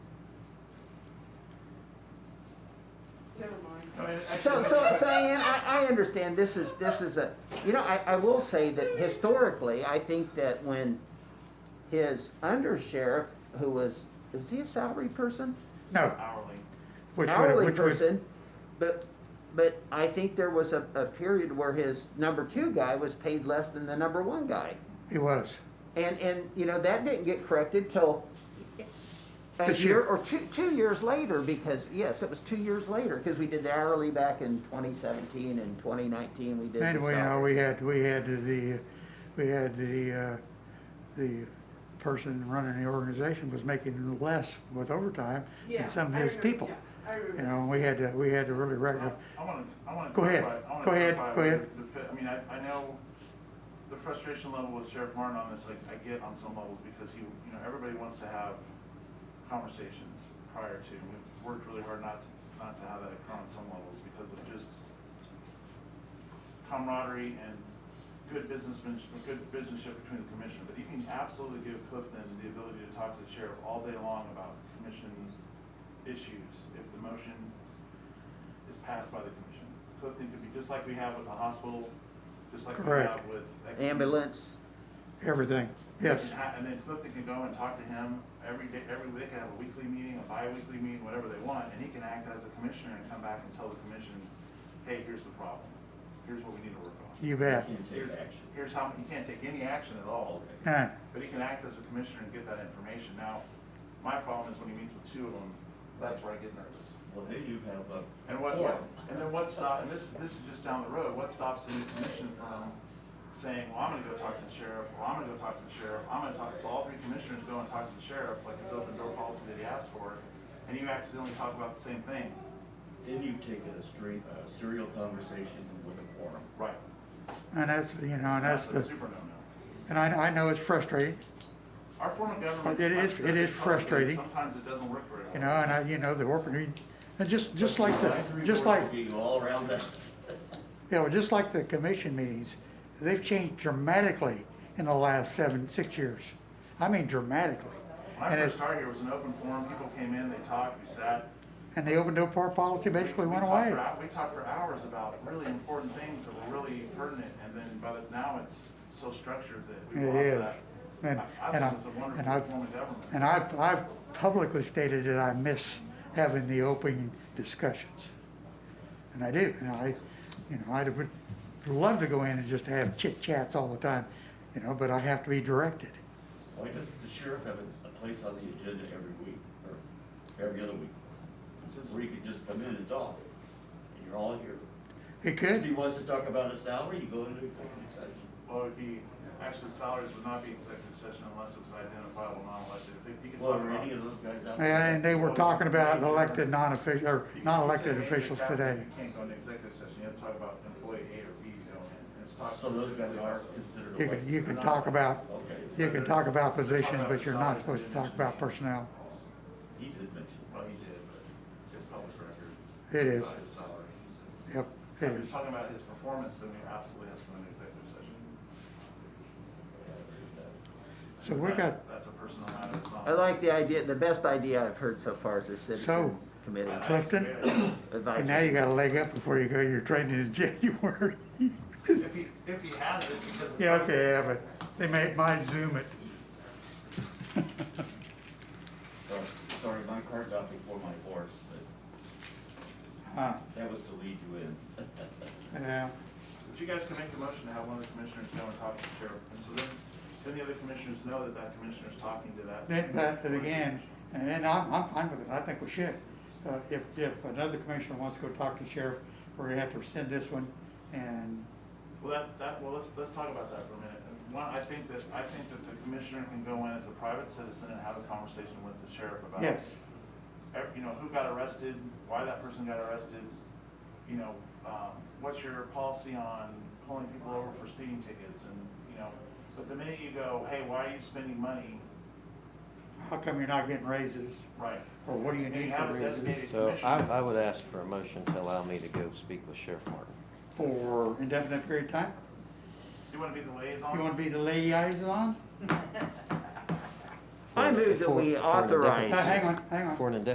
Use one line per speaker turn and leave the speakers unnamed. I mean, I-
So, so, so Ann, I, I understand this is, this is a, you know, I, I will say that historically, I think that when his undersheriff, who was, was he a salary person?
No,
Oh.
Hourly.
which would,
Hourly
which would,
person, but, but I think there was a, a period where his number two guy was paid less than the number one guy.
he was.
And, and, you know, that didn't get corrected till a
This
year
year.
or two, two years later, because, yes, it was two years later, because we did the hourly back in twenty seventeen and twenty nineteen, we did the
And we know,
salary.
we had, we had the, we had the, uh, the person running the organization was making less with overtime
Yeah,
than some
I
of his
remember,
people.
yeah, I
You
remember.
know, we had to, we had to really
I
record.
wanna, I wanna.
Go ahead.
clarify- I wanna
Go ahead.
clarify
Go
where
ahead.
the fit- I mean, I, I know the frustration level with Sheriff Martin on this, like, I get on some levels, because he, you know, everybody wants to have conversations prior to, and we've worked really hard not, to- not to have that occur on some levels, because of just camaraderie and good businessmanship, good businessship between the commission, but you can absolutely give Clifton the ability to talk to the sheriff all day long about commission issues, if the motion is passed by the commission. Clifton could be, just like we have with the hospital, just like we
Correct.
have with.
Ambulance,
everything, yes.
And ha- And then Clifton can go and talk to him every day, every week, they can have a weekly meeting, a bi-weekly meeting, whatever they want, and he can act as a commissioner and come back and tell the commission, hey, here's the problem, here's what we need to work on.
You bet.
Can't take
Here's-
action.
Here's how, he can't take any action at all,
Okay.
Huh.
but he can act as a commissioner and get that information. Now, my problem is when he meets with two of them, that's where I get nervous.
Well, then you have a.
And what,
forum.
and then what stop, and this, this is just down the road, what stops the new commission from saying, well, I'm gonna go talk to the sheriff, well, I'm gonna go talk to the sheriff, I'm gonna talk, so all three commissioners go and talk to the sheriff, like his open door policy that he asked for, and you accidentally talk about the same thing.
Then you've taken a straight, a serial conversation with a quorum.
Right.
And that's, you know, and that's
a
the,
super no-no.
and I, I know it's frustrating,
Our form of government.
It is-
sometimes
it is
helpful, but
frustrating.
Sometimes it doesn't work very well.
you know, and I, you know, the orphan, and just, just like the,
Advisory
just
boards
like,
would Be all around that.
Yeah, well, just like the commission meetings, they've changed dramatically in the last seven, six years. I mean dramatically.
When I
And
first
it's,
started here, it was an open forum, people came in, they talked, we sat.
and the open door policy basically
We
went
talked
away.
for hou- We talked for hours about really important things that were really pertinent, and then by the, now it's so structured that we
It
lost
is.
that.
And,
I- I
and I,
think it's a wonderful
and I,
form of government.
and I've, I've publicly stated that I miss having the open discussions. And I do, and I, you know, I would love to go in and just have chit chats all the time, you know, but I have to be directed.
Why does the sheriff have a- a place on the agenda every week or every other week?
It's just-
Where you could just come in and talk and you're all here.
It
If
could,
he wants to talk about his salary, you go into executive session.
Well, it would be, actually salaries would not be executive session unless it was identifiable non-elected. If they- you can
Well,
talk
are
about-
any of those guys out there?
Yeah, and they were talking about elected non-official, or
you can-
non-elected
you said
officials
major
today.
factors, You can't go into extive session, you have to talk about employee A or B, you know, and- and it's not.
So those guys
specifically-
are considered.
You can,
elected.
you can talk about,
Okay,
you can talk about positions, but you're not supposed to talk about personnel.
he did mention.
Well, he did, but it's public record.
It is.
About his salary. If
Yep, it
you're
is.
talking about his performance, then we absolutely have to go into executive session.
So we got,
That- That's a personal matter, it's not.
I like the idea, the best idea I've heard so far is the citizens
I-
committee
I-
Clifton? uh, and now you
advisory.
got a leg up before you go to your training in January.
If he, if he has it, because. it's-
Yeah, okay, yeah, but they may, might zoom it.
So, Sorry, my card's out before my horse, but
Huh,
that was to lead you in.
Uh, yeah.
But you guys can make the motion to have one of the commissioners go and talk to the sheriff, and so then, then the other commissioners know that that commissioner's talking to that.
Then, but then again, and I'm, I'm fine with it, I think we should. Uh, if, if another commissioner wants to go talk to sheriff, we're gonna have to rescind this one and
Well, that, that, well, let's, let's talk about that for a minute. And One, I think that, I think that the commissioner can go in as a private citizen and have a conversation with the sheriff about.
Yes.
ev- You know, who got arrested, why that person got arrested, you know, um, what's your policy on pulling people over for speeding tickets and, you know, but the minute you go, hey, why are you spending money?
how come you're not getting raises?
Right.
Or what do you
And you
need for
have a
raises?
designated
So
commissioner.
I, I would ask for a motion to allow me to go speak with Sheriff Martin.
For indefinite period of time?
You wanna be the liaison?
You wanna be the liaison?
I move that
For- for an
we
indefinite-
Uh,
authorize
Oh, hang on, hang on.
For an indefinite